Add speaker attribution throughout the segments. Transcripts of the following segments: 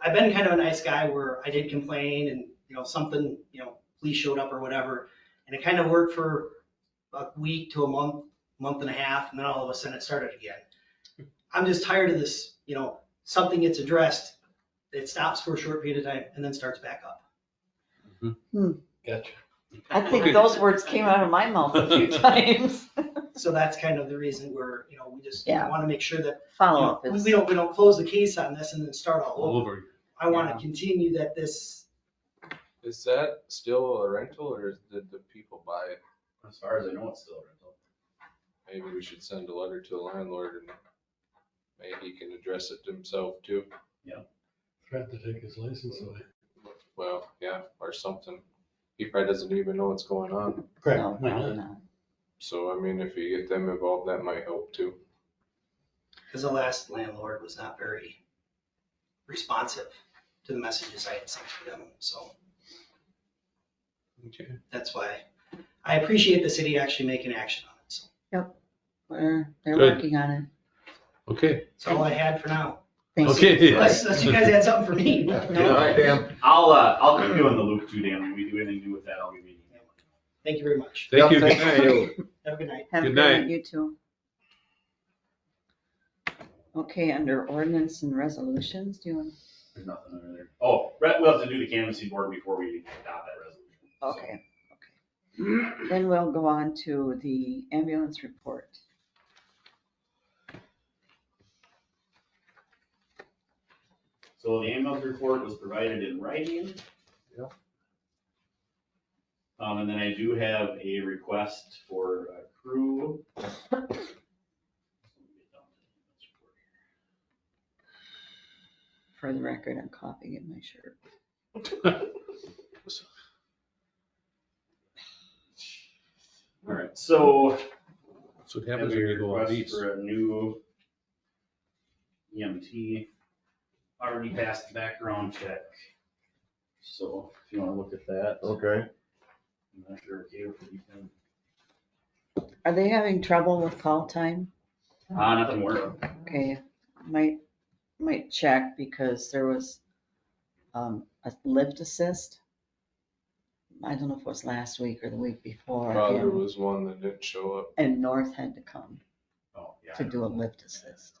Speaker 1: I've been kind of a nice guy where I did complain and, you know, something, you know, police showed up or whatever. And it kind of worked for a week to a month, month and a half, and then all of a sudden it started again. I'm just tired of this, you know, something gets addressed, it stops for a short period of time and then starts back up.
Speaker 2: Gotcha.
Speaker 3: I think those words came out of my mouth a few times.
Speaker 1: So that's kind of the reason we're, you know, we just
Speaker 3: Yeah.
Speaker 1: want to make sure that, you know,
Speaker 3: Follow-up
Speaker 1: we
Speaker 3: is,
Speaker 1: we don't, we don't close the case on this and then start all
Speaker 2: All
Speaker 1: over.
Speaker 2: over.
Speaker 1: I want
Speaker 3: Yeah.
Speaker 1: to continue that this,
Speaker 4: Is that still a rental or is- did the people buy it?
Speaker 5: As far as I know, it's still a rental.
Speaker 4: Maybe we should send a letter to the landlord and maybe he can address it himself too.
Speaker 2: Threat to take his license away.
Speaker 4: Well, yeah, or something. He probably doesn't even know what's going on.
Speaker 3: no, probably not.
Speaker 4: So I mean, if you get them involved, that might help too.
Speaker 1: because the last landlord was not very responsive to the messages I had sent to them, so
Speaker 4: Okay.
Speaker 1: that's why I appreciate the city actually making action on it, so
Speaker 3: They're, they're
Speaker 2: Good.
Speaker 3: working on it.
Speaker 2: Okay.
Speaker 1: that's all I had for now.
Speaker 3: Thank you.
Speaker 2: Okay.
Speaker 1: Unless unless you guys had something for me.
Speaker 2: Yeah.
Speaker 1: No?
Speaker 2: All right,
Speaker 5: Dan. I'll, uh, I'll keep you in the loop too, Dan. When we do anything new with that, I'll give you an email.
Speaker 1: Thank you very much.
Speaker 2: Thank you.
Speaker 3: Thank
Speaker 2: Good night.
Speaker 1: Have a good night.
Speaker 3: Have a
Speaker 2: Good
Speaker 3: good
Speaker 2: night.
Speaker 3: night, you too. Okay, under ordinance and resolutions, do you want,
Speaker 5: There's nothing under there. Oh, right, we'll have to do the canvassing board before we adopt that resolution. So,
Speaker 3: okay, okay. Then we'll go on to the ambulance report.
Speaker 5: So the ambulance report was provided in writing.
Speaker 4: Yep.
Speaker 5: Um, and then I do have a request for a crew.
Speaker 3: For the record, I'm coughing in my shirt.
Speaker 5: All right, so
Speaker 2: That's what
Speaker 5: Have
Speaker 2: happens
Speaker 5: a
Speaker 2: when you go on
Speaker 5: request
Speaker 2: these.
Speaker 5: For a new EMT, already passed the background check. So if you wanna look at that, I'm
Speaker 6: Okay.
Speaker 5: not sure if you can,
Speaker 3: Are they having trouble with call time?
Speaker 5: ah, nothing worked.
Speaker 3: Okay, might, might check because there was, um, a lift assist. I don't know if it was last week or the week before.
Speaker 4: Father
Speaker 3: and-
Speaker 4: was one that didn't show up.
Speaker 3: And North had to come
Speaker 5: Oh, yeah.
Speaker 3: to do a lift assist.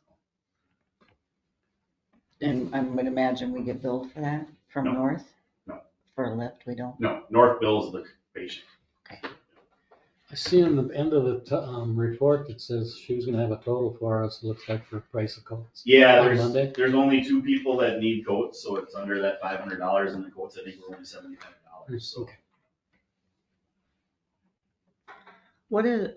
Speaker 3: And I would imagine we get billed for that from
Speaker 5: No.
Speaker 3: North?
Speaker 5: No.
Speaker 3: For a lift, we don't?
Speaker 5: No, North Bill's the patient.
Speaker 7: I see on the end of the t- um, report, it says she was gonna have a total for us, looks like for price of coats.
Speaker 5: Yeah,
Speaker 7: On
Speaker 5: there's,
Speaker 7: Monday?
Speaker 5: there's only two people that need coats, so it's under that five hundred dollars and the coats, I think, were only seventy-five dollars, so.
Speaker 3: What is,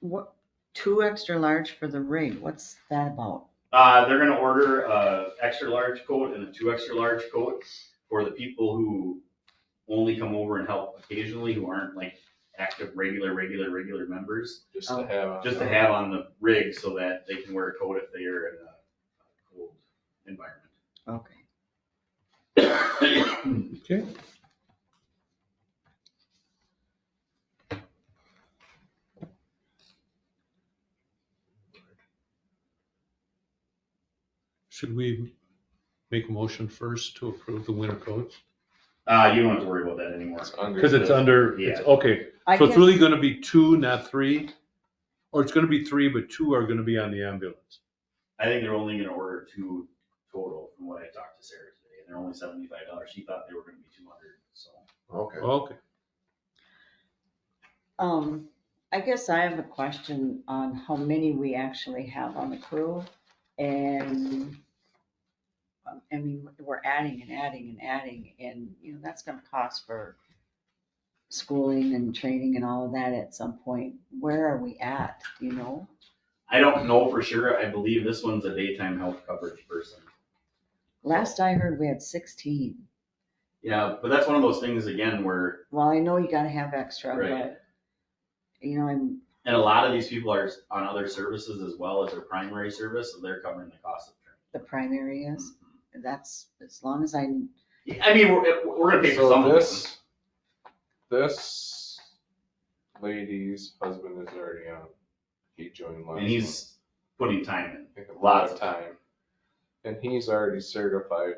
Speaker 3: what, two extra large for the rig, what's that about?
Speaker 5: Uh, they're gonna order a extra large coat and a two extra large coat for the people who only come over and help occasionally, who aren't like active, regular, regular, regular members.
Speaker 4: Just to have. on
Speaker 5: Oh. Just to
Speaker 4: there.
Speaker 5: have on the rig so that they can wear a coat if they are in a cold environment.
Speaker 3: Okay.
Speaker 2: Okay. Should we make a motion first to approve the winter coats?
Speaker 5: Uh, you don't have to worry about that anymore.
Speaker 4: It's under
Speaker 2: Because it's
Speaker 4: the-
Speaker 2: under, it's,
Speaker 5: Yeah.
Speaker 2: okay,
Speaker 3: I
Speaker 2: so it's
Speaker 3: guess,
Speaker 2: really gonna be two, not three? Or it's gonna be three, but two are gonna be on the ambulance?
Speaker 5: I think they're only gonna order two total from what I talked to Sarah today, and they're only seventy-five dollars. She thought they were gonna be two hundred, so.
Speaker 6: Okay.
Speaker 2: Okay,
Speaker 3: um, I guess I have a question on how many we actually have on the crew and um, I mean, we're adding and adding and adding and, you know, that's gonna cost for schooling and training and all of that at some point. Where are we at, do you know?
Speaker 5: I don't know for sure. I believe this one's a daytime health coverage person.
Speaker 3: Last I heard, we had sixteen.
Speaker 5: Yeah, but that's one of those things again where,
Speaker 3: Well, I know you gotta have extra,
Speaker 5: Right.
Speaker 3: but, you know, I'm,
Speaker 5: and a lot of these people are on other services as well as their primary service, so they're covering the cost of training.
Speaker 3: the primary is, that's, as long as I
Speaker 5: Yeah, I mean, we're, we're gonna pay for some
Speaker 4: So
Speaker 5: of this.
Speaker 4: this, this lady's husband is already on. He joined last.
Speaker 5: And he's putting time
Speaker 4: month.
Speaker 5: in,
Speaker 4: Took a
Speaker 5: lots
Speaker 4: lot
Speaker 5: of
Speaker 4: of time. And he's already certified